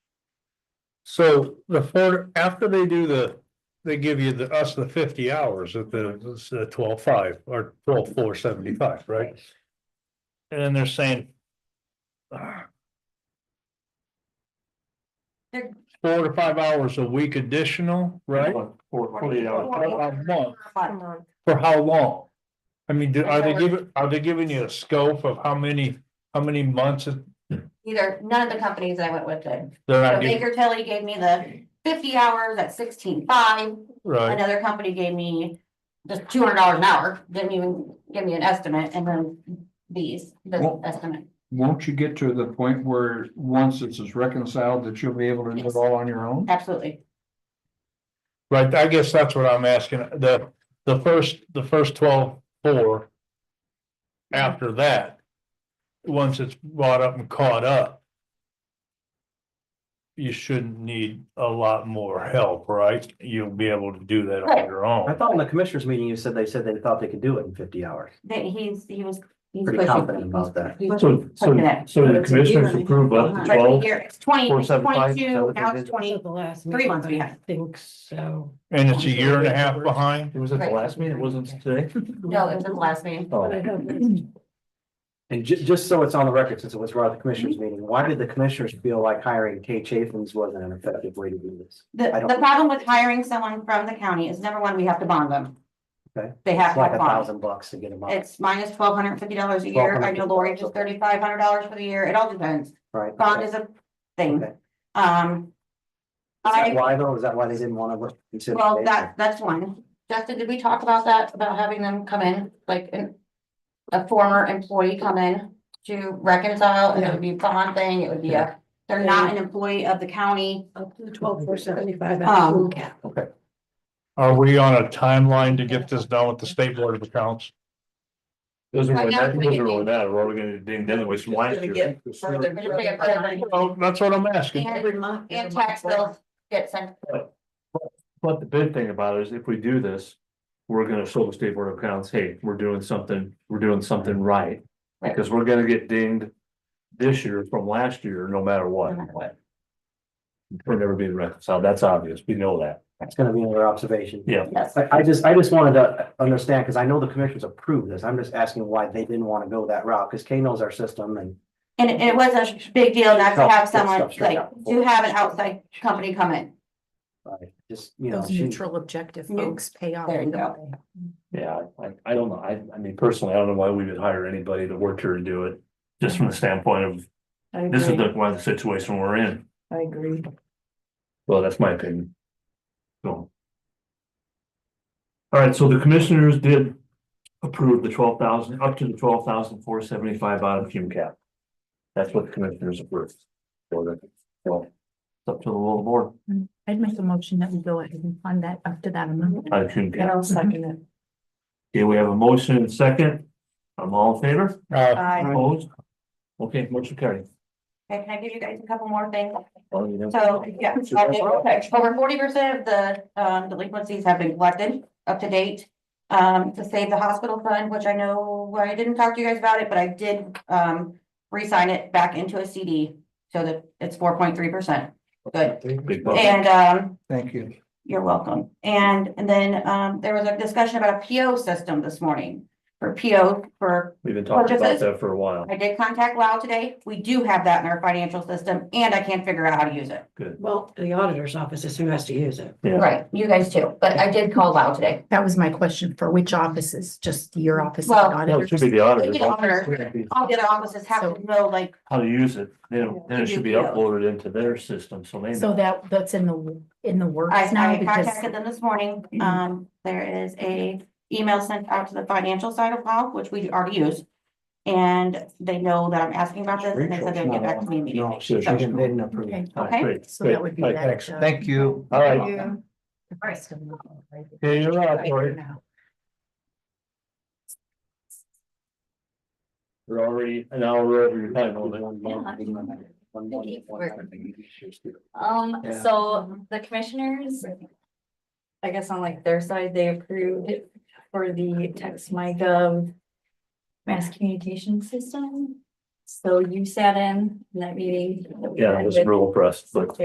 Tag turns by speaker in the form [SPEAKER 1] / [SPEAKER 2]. [SPEAKER 1] So the four, after they do the, they give you the, us the fifty hours at the twelve five or twelve four seventy five, right? And then they're saying. ah.
[SPEAKER 2] They're-
[SPEAKER 1] Four to five hours a week additional, right?
[SPEAKER 3] Four, forty-eight hours.
[SPEAKER 1] A month,
[SPEAKER 2] Month.
[SPEAKER 1] for how long? I mean, do- are they giving, are they giving you a scope of how many, how many months it-
[SPEAKER 2] Either, none of the companies I went with did.
[SPEAKER 1] they're
[SPEAKER 2] So
[SPEAKER 1] not giving,
[SPEAKER 2] Baker Tilly gave me the fifty hours at sixteen five,
[SPEAKER 1] right?
[SPEAKER 2] another company gave me just two hundred dollars an hour, didn't even give me an estimate, and then these, the
[SPEAKER 3] Well-
[SPEAKER 2] estimate.
[SPEAKER 3] Won't you get to the point where, once this is reconciled, that you'll be able to do it all on your own?
[SPEAKER 2] Absolutely,
[SPEAKER 1] Right, I guess that's what I'm asking, the, the first, the first twelve four. After that. Once it's brought up and caught up. You shouldn't need a lot more help, right? You'll be able to do that on your
[SPEAKER 4] I
[SPEAKER 1] own.
[SPEAKER 4] thought in the commissioners meeting, you said they said they thought they could do it in fifty hours.
[SPEAKER 2] that he's, he was. he's
[SPEAKER 4] Pretty
[SPEAKER 2] pushing-
[SPEAKER 4] confident about that.
[SPEAKER 2] he's
[SPEAKER 5] So, so,
[SPEAKER 2] pushing it.
[SPEAKER 5] so the commissioners approve up to
[SPEAKER 2] Right
[SPEAKER 5] twelve,
[SPEAKER 2] here, it's twenty,
[SPEAKER 5] four, seven, five, is that
[SPEAKER 2] twenty-two,
[SPEAKER 5] what they
[SPEAKER 2] now it's
[SPEAKER 5] did?
[SPEAKER 6] So
[SPEAKER 2] twenty,
[SPEAKER 6] the last
[SPEAKER 2] three months
[SPEAKER 6] meeting,
[SPEAKER 2] we
[SPEAKER 6] I
[SPEAKER 2] had.
[SPEAKER 6] Think so.
[SPEAKER 1] And it's a year and a half behind,
[SPEAKER 5] it was at the last meeting, it wasn't today?
[SPEAKER 2] no, it was his last name.
[SPEAKER 6] But I
[SPEAKER 5] Oh,
[SPEAKER 6] don't know.
[SPEAKER 4] And ju- just so it's on the record, since it was brought up at the commissioners
[SPEAKER 2] Mm-hmm.
[SPEAKER 4] meeting, why did the commissioners feel like hiring Kay Chafins wasn't an effective way to do this?
[SPEAKER 2] The,
[SPEAKER 4] I don't-
[SPEAKER 2] the problem with hiring someone from the county is number one, we have to bond them.
[SPEAKER 4] Okay.
[SPEAKER 2] They have
[SPEAKER 4] It's
[SPEAKER 2] to
[SPEAKER 4] like
[SPEAKER 2] have
[SPEAKER 4] a
[SPEAKER 2] bonds.
[SPEAKER 4] thousand bucks to get them up,
[SPEAKER 2] It's minus twelve hundred and fifty dollars a year. I know Lori just thirty-five hundred dollars for the year. It all depends.
[SPEAKER 4] right?
[SPEAKER 2] Bond is a thing.
[SPEAKER 4] Okay.
[SPEAKER 2] Um.
[SPEAKER 4] Is that
[SPEAKER 2] I,
[SPEAKER 4] why though? Is that why they didn't want to consider?
[SPEAKER 2] well,
[SPEAKER 4] Kay?
[SPEAKER 2] that, that's one. Justin, did we talk about that, about having them come in, like, an- a former employee come in to reconcile, and it would be a bond thing, it would be a, they're not an employee of the county.
[SPEAKER 6] Up to the twelve four seventy five.
[SPEAKER 2] Um,
[SPEAKER 1] are we on a timeline to get this done with the state board of accounts?
[SPEAKER 5] Doesn't
[SPEAKER 2] Right
[SPEAKER 5] really
[SPEAKER 2] now,
[SPEAKER 5] matter,
[SPEAKER 2] we
[SPEAKER 5] doesn't
[SPEAKER 2] can
[SPEAKER 5] really
[SPEAKER 2] do-
[SPEAKER 5] matter, we're all gonna do anyways from last year.
[SPEAKER 6] Get further-
[SPEAKER 2] We're just gonna get-
[SPEAKER 1] Well, that's what I'm asking.
[SPEAKER 6] Every month.
[SPEAKER 2] And tax bills get sent
[SPEAKER 5] But the big thing about it is if we do this, we're gonna show the state board of accounts, hey, we're doing something, we're doing something right.
[SPEAKER 2] Right.
[SPEAKER 5] Because we're gonna get dinged this year from last year, no matter
[SPEAKER 2] no
[SPEAKER 5] what.
[SPEAKER 2] matter what.
[SPEAKER 5] We're never being reconciled, that's obvious, we know that.
[SPEAKER 4] That's gonna be another observation.
[SPEAKER 5] Yeah.
[SPEAKER 2] Yes,
[SPEAKER 4] I, I just, I just wanted to understand, because I know the commissioners approved this. I'm just asking why they didn't want to go that route, because Kay knows our system and
[SPEAKER 2] and it- it was a big deal not to
[SPEAKER 4] Stuff-
[SPEAKER 2] have
[SPEAKER 4] stuff
[SPEAKER 2] someone,
[SPEAKER 4] straight
[SPEAKER 2] like,
[SPEAKER 4] out.
[SPEAKER 2] to have an outside company come in.
[SPEAKER 4] I just, you know,
[SPEAKER 6] Those
[SPEAKER 4] she.
[SPEAKER 6] neutral objective
[SPEAKER 2] Yeah.
[SPEAKER 6] folks pay off.
[SPEAKER 2] There you
[SPEAKER 6] either
[SPEAKER 2] go.
[SPEAKER 6] way.
[SPEAKER 5] Yeah, I, I don't know, I, I mean, personally, I don't know why we would hire anybody to work here and do it, just from the standpoint of,
[SPEAKER 6] I
[SPEAKER 5] this is
[SPEAKER 6] agree.
[SPEAKER 5] the, why the situation we're in,
[SPEAKER 6] I agree.
[SPEAKER 5] well, that's my opinion. So. All right, so the commissioners did approve the twelve thousand, up to the twelve thousand four seventy-five out of fume cap. That's what the commissioners approved. So that- Well, it's up to the will of the board,
[SPEAKER 7] I'd make a motion that we go ahead and fund that up to that amount.
[SPEAKER 5] out of fume
[SPEAKER 6] And
[SPEAKER 5] cap,
[SPEAKER 6] I'll second it.
[SPEAKER 5] okay, we have a motion and second, I'm all in favor,
[SPEAKER 1] Uh,
[SPEAKER 2] Uh,
[SPEAKER 5] opposed? Okay, motion carried.
[SPEAKER 2] okay, can I give you guys a couple more things?
[SPEAKER 5] Well, you know.
[SPEAKER 2] So, yeah, I'll do it real quick. over forty percent of the um delinquencies have been collected up to date. Um, to save the hospital fund, which I know I didn't talk to you guys about it, but I did um re-sign it back into a CD. So that it's four point three percent. Good.
[SPEAKER 5] Big bucks.
[SPEAKER 2] And um,
[SPEAKER 3] Thank you.
[SPEAKER 2] You're welcome. And, and then, um, there was a discussion about a PO system this morning. For PO, for,
[SPEAKER 5] We've been talking about
[SPEAKER 2] Purchases?
[SPEAKER 5] that for a while.
[SPEAKER 2] I did contact Lao today. We do have that in our financial system and I can't figure out how to use it.
[SPEAKER 6] Well, the auditor's office is who has to use it.
[SPEAKER 5] Yeah.
[SPEAKER 2] Right, you guys too, but I did call Lao today.
[SPEAKER 7] That was my question for which offices, just your office?
[SPEAKER 2] Well-
[SPEAKER 7] not
[SPEAKER 5] No, it should be
[SPEAKER 7] others?
[SPEAKER 5] the auditor.
[SPEAKER 2] The auditor. All the other offices have to know like,
[SPEAKER 5] How to use it, then, then it should be uploaded into their system, so they.
[SPEAKER 7] So
[SPEAKER 5] know.
[SPEAKER 7] that, that's in the, in the
[SPEAKER 2] I,
[SPEAKER 7] works now
[SPEAKER 2] I
[SPEAKER 7] because,
[SPEAKER 2] contacted them this morning. Um, there is a email sent out to the financial side of Lao, which we already use. And they know that I'm asking about this and they said they'd get back to me immediately.
[SPEAKER 4] No, she she didn't, they didn't approve.
[SPEAKER 7] Okay.
[SPEAKER 5] All right,
[SPEAKER 2] okay.
[SPEAKER 5] great,
[SPEAKER 7] so that
[SPEAKER 5] great.
[SPEAKER 7] would be
[SPEAKER 5] All right,
[SPEAKER 7] that. uh,
[SPEAKER 3] Thank you.
[SPEAKER 5] All right,
[SPEAKER 7] the first of the month, right?
[SPEAKER 5] Yeah, you're right, Lori.
[SPEAKER 7] Now.
[SPEAKER 5] we're already an hour over your time on that.
[SPEAKER 8] Um,
[SPEAKER 4] Yeah.
[SPEAKER 8] so the commissioners, I guess on like their side, they approved it for the text my gov. Mass communication system. So you sat in that meeting. that we
[SPEAKER 5] Yeah,
[SPEAKER 8] had
[SPEAKER 5] it was
[SPEAKER 8] with
[SPEAKER 5] real impressed, but.